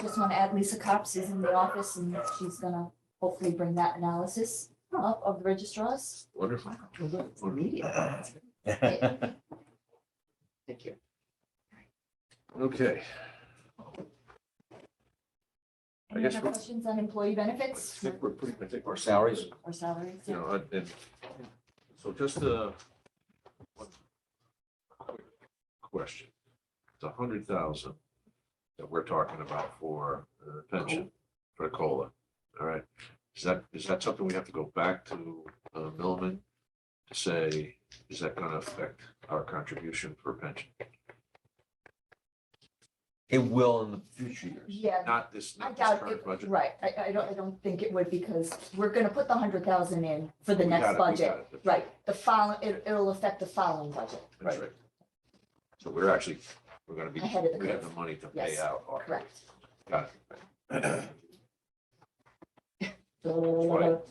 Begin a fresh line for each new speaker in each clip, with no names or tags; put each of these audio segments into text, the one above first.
just want to add Lisa Cops is in the office and she's gonna hopefully bring that analysis up of the registrars.
Wonderful.
Immediate. Thank you.
Okay, I
Any
guess
other
we're-
questions on employee
I
benefits
think we're pretty, I think our salaries,
or salaries?
you
Yeah.
know, and- and, so just a one quick question. It's a hundred thousand that we're talking about for uh, pension, for COLA, all right? Is that, is that something we have to go back to uh, Milliman to say, is that gonna affect our contribution for pension?
It will in the future years.
Yeah,
Not this,
I
not this
doubt it,
current budget.
right, I, I don't, I don't think it would because we're gonna put the hundred thousand in for the
We got
next
it, we
budget.
got it. That's
Right, the following, it, it'll affect the following budget,
That's right. So we're actually, we're gonna be,
Ahead of the
we have the
curve.
money to pay
Yes.
out. our-
correct?
Got it.
That's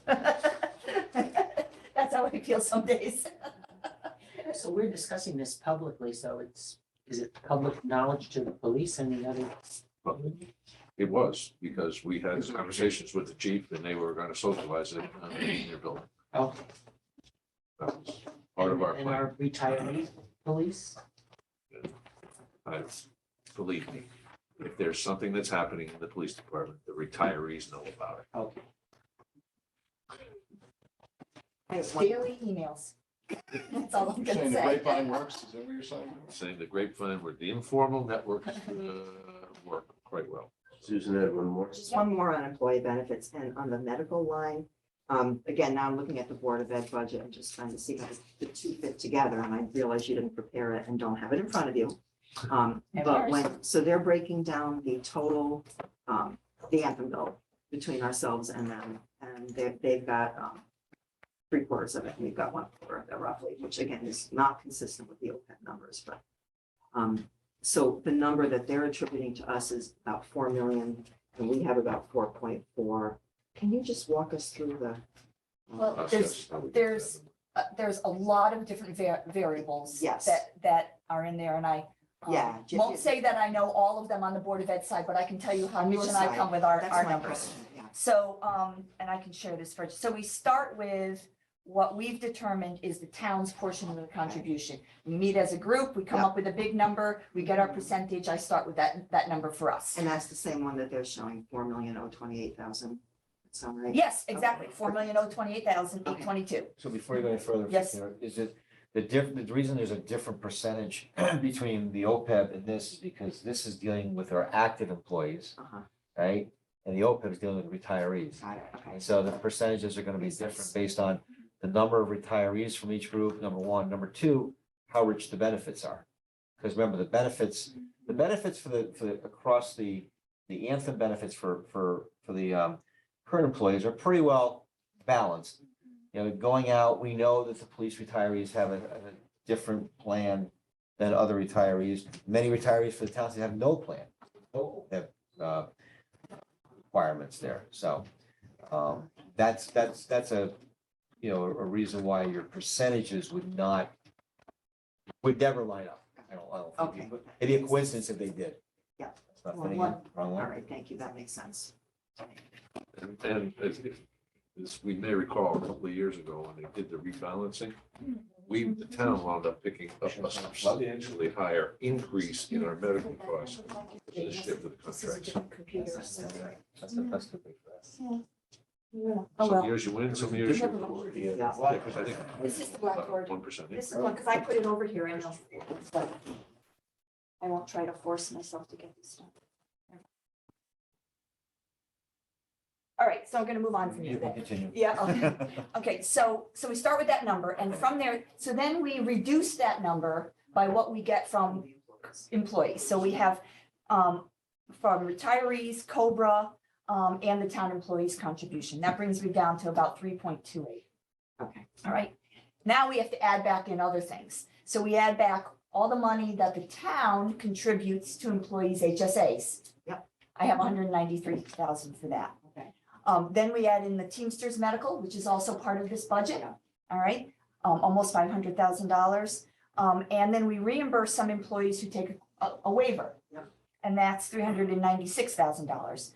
how I feel some days.
So we're discussing this publicly, so it's, is it public knowledge to the police and the other?
Well, It was, because we had conversations with the chief and they were gonna socialize it uh, in their building.
Oh,
That was Part of our
And
plan,
our retiree police?
I- believe me. If there's something that's happening in the police department, the retirees know about it.
Okay.
Daily emails. That's all I'm gonna
Saying the grapevine
say.
works, is that what you're saying?
Saying the grapevine where the informal networks uh, work quite well.
Susan had one more.
Just one more on employee benefits and on the medical line. Um, again, now I'm looking at the Board of Ed budget and just trying to see how the two fit together, and I realize you didn't prepare it and don't have it in front of you. Um,
No
but
worries.
when, so they're breaking down the total, um, the anthem bill between ourselves and them, and they, they've got, um, three quarters of it, and we've got one quarter of it roughly, which again is not consistent with the OPEB numbers, but, um, so the number that they're attributing to us is about four million and we have about four point four. Can you just walk us through the? um,
Well,
That's
there's,
just how we do
there's-
that.
uh, there's a lot of different va- variables.
Yes.
That, that are in there and I. um,
Yeah, ju-
Won't say that I know all of them on the Board of Ed side, but I can tell you how
On your
Mitch and I
side,
come with our,
That's
our
my
numbers.
question, yeah.
So, um, and I can share this first. So we start with what we've determined is the town's portion of the contribution. We meet as a group, we come up with a big number, we get our percentage, I start with that, that number for us.
Mm-hmm. And that's the same one that they're showing, four million oh twenty-eight thousand. Sound right?
Yes, exactly, four million oh twenty-eight thousand eight
Okay.
twenty-two.
So before you go any further.
Yes.
Sarah, Is it, the diff, the reason there's a different percentage between the OPEB and this is because this is dealing with our active employees,
Uh-huh,
right? And the OPEB is dealing with retirees.
got it, okay.
And so the percentages are gonna be different based on the number of retirees from each group, number one. Number two, how rich the benefits are. Because remember, the benefits, the benefits for the, for the, across the, the Anthem benefits for, for, for the, um, current employees are pretty well balanced. You know, going out, we know that the police retirees have a, a different plan than other retirees. Many retirees for the towns that have no plan, no, uh, requirements there, so. Um, that's, that's, that's a, you know, a reason why your percentages would not, would never line up. I don't, I don't. think it would.
Okay.
It'd be a coincidence if they did.
Yeah.
It's not
Well,
fitting in.
one-
Wrong
All
one.
right, thank you, that makes sense.
And, and as, as we may recall, a couple of years ago, when they did the rebalancing, we, the town wound up picking up a substantially higher increase in our medical costs. than the shift of the contracts.
That's the- that's the- that's the big factor.
Oh,
Some
well,
years you win, some years you.
Never mind.
lose.
Yeah.
Yeah, 'cause I think
this is the blackboard.
One percent.
This is one, because I put it over here and I'll, it's like, I won't try to force myself to get this stuff. All right, so I'm gonna move on from you
You can
then.
continue.
Yeah, okay. Okay, so, so we start with that number and from there, so then we reduce that number by what we get from employees. So we have, um, from retirees, Cobra, um, and the town employees contribution. That brings me down to about three point two eight.
Okay.
All right, now we have to add back in other things. So we add back all the money that the town contributes to employees' HSAs.
Yep.
I have hundred and ninety-three thousand for that.
Okay.
Um, then we add in the Teamsters Medical, which is also part of this budget.
Yeah.
All right, um, almost five hundred thousand dollars. Um, and then we reimburse some employees who take a- a waiver.
Yep.
and that's three hundred and ninety-six thousand dollars.